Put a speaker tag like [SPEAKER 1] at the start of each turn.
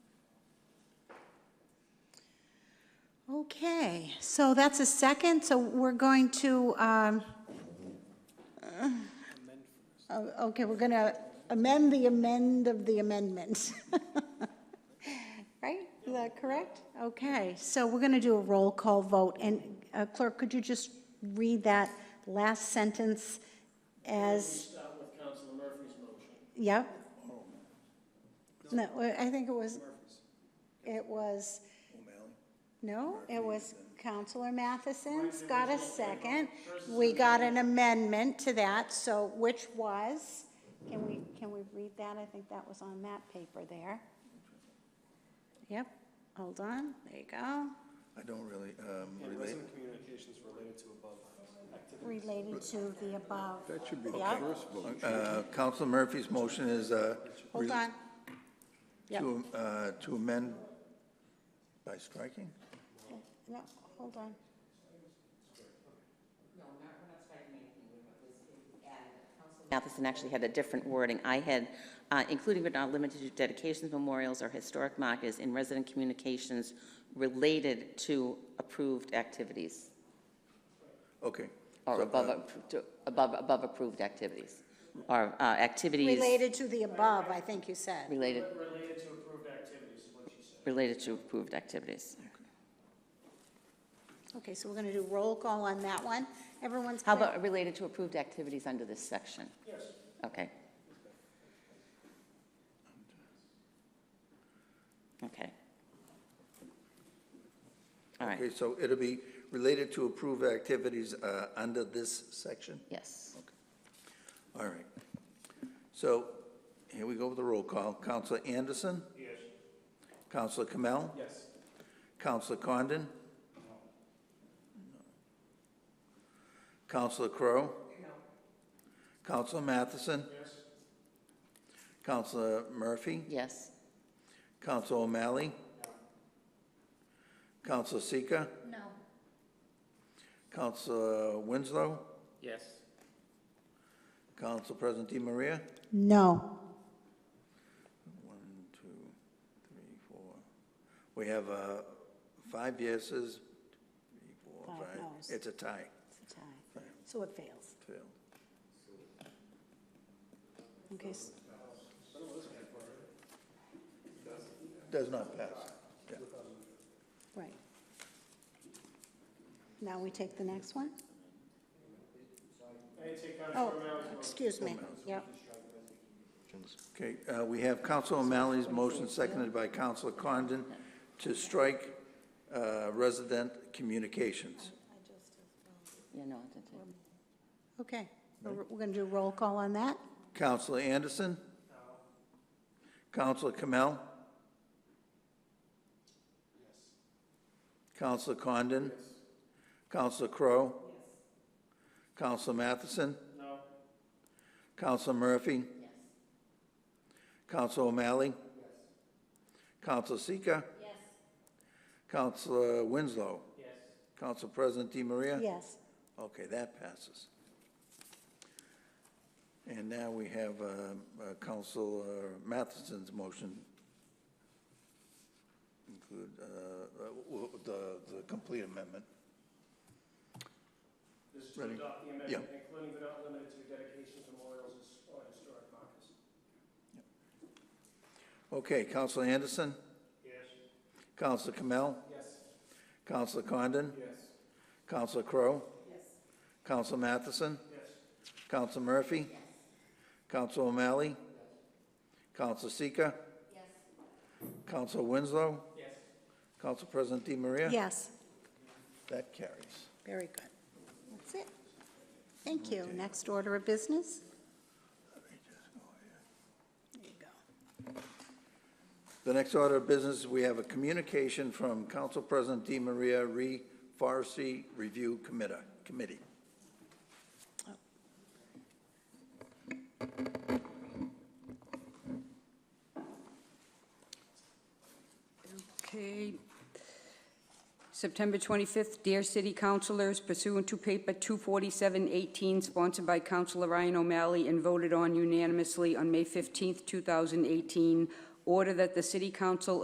[SPEAKER 1] Okay, so that's a second, so we're going to, um, oh, okay, we're going to amend the amend of the amendment. Right, is that correct? Okay, so we're going to do a roll call vote, and uh, Clerk, could you just read that last sentence as? Yep. No, I think it was, it was. No, it was Counselor Matheson's got a second. We got an amendment to that, so which was, can we, can we read that? I think that was on that paper there. Yep, hold on, there you go.
[SPEAKER 2] I don't really, um, relate,
[SPEAKER 3] Resident communications related to above activities.
[SPEAKER 1] Related to the above.
[SPEAKER 4] That should be the
[SPEAKER 1] Yep.
[SPEAKER 4] first vote.
[SPEAKER 2] uh, Council Murphy's motion is, uh,
[SPEAKER 1] Hold
[SPEAKER 2] rel-
[SPEAKER 1] on. Yep.
[SPEAKER 2] To, uh, to amend by striking?
[SPEAKER 1] No, hold on.
[SPEAKER 5] Matheson actually had a different wording. I had, uh, including but not limited to dedications, memorials, or historic markers in resident communications related to approved activities,
[SPEAKER 2] Okay.
[SPEAKER 5] or
[SPEAKER 1] Oh,
[SPEAKER 2] So,
[SPEAKER 5] above,
[SPEAKER 2] uh,
[SPEAKER 5] appro- to- above, above approved activities, or uh, activities.
[SPEAKER 1] Related to the above, I think you said.
[SPEAKER 5] Related. Related to approved activities, is what she said. Related to approved activities.
[SPEAKER 1] Okay, so we're gonna do roll call on that one. Everyone's
[SPEAKER 5] How
[SPEAKER 1] clear?
[SPEAKER 5] about related to approved activities under this section? Yes. Okay. Okay. All right,
[SPEAKER 2] Okay, so it'll be related to approved activities, uh, under this section?
[SPEAKER 5] yes.
[SPEAKER 2] All right. So here we go with the roll call. Counselor Anderson? Yes. Counselor Kamel?
[SPEAKER 3] Yes.
[SPEAKER 2] Counselor Condon? Counselor Crowe? Counselor Matheson? Yes. Counselor Murphy?
[SPEAKER 5] Yes,
[SPEAKER 2] Counselor O'Malley? Counselor Seeker? No. Counselor Winslow?
[SPEAKER 3] Yes.
[SPEAKER 2] Counsel President Di Maria?
[SPEAKER 1] No.
[SPEAKER 2] One, two, three, four. We have uh, five yeses, three, four,
[SPEAKER 1] Five
[SPEAKER 2] five.
[SPEAKER 1] noes.
[SPEAKER 2] It's a tie.
[SPEAKER 1] It's a tie. So it fails.
[SPEAKER 2] Failed.
[SPEAKER 1] Okay, s-
[SPEAKER 2] Does not pass. Yeah.
[SPEAKER 1] right. Now we take the next one? Oh, excuse me, yep.
[SPEAKER 2] Okay, uh, we have Counsel O'Malley's motion seconded by Counsel Condon to strike uh, resident communications.
[SPEAKER 5] yeah, no, I didn't.
[SPEAKER 1] Okay, we're we're gonna do roll call on that?
[SPEAKER 2] Counselor Anderson? Counselor Kamel? Counselor Condon? Counselor Crowe? Counselor Matheson? No. Counselor Murphy? Yes. Counselor O'Malley? Yes. Counselor Seeker? Yes. Counselor Winslow? Yes. Counsel President Di Maria?
[SPEAKER 1] Yes.
[SPEAKER 2] Okay, that passes. And now we have um, uh, Counsel uh, Matheson's motion. Include uh, uh, w- w- the, the complete amendment.
[SPEAKER 3] This is to
[SPEAKER 2] Ready?
[SPEAKER 3] adopt the amendment,
[SPEAKER 2] Yeah.
[SPEAKER 3] including but not limited to dedications, memorials, or historic markers.
[SPEAKER 2] Okay, Counsel Anderson,
[SPEAKER 3] Yes.
[SPEAKER 2] Counsel Kamel,
[SPEAKER 3] Yes.
[SPEAKER 2] Counsel Condon,
[SPEAKER 3] Yes.
[SPEAKER 2] Counsel Crowe. Yes. Counsel Matheson,
[SPEAKER 3] Yes.
[SPEAKER 2] Counsel Murphy. Yes. Counsel O'Malley. Counsel Seeker. Yes. Counsel Winslow,
[SPEAKER 3] Yes.
[SPEAKER 2] Counsel President Di Maria.
[SPEAKER 1] Yes,
[SPEAKER 2] That carries.
[SPEAKER 1] very good. That's it. Thank you. Next order of business? There you go.
[SPEAKER 2] The next order of business, we have a communication from Council President Di Maria re Forestry Review Committa- Committee.
[SPEAKER 6] Okay. September 25th, dear city councilors, pursuant to paper 24718, sponsored by Councilor Ryan O'Malley and voted on unanimously on May 15th, 2018, order that the city council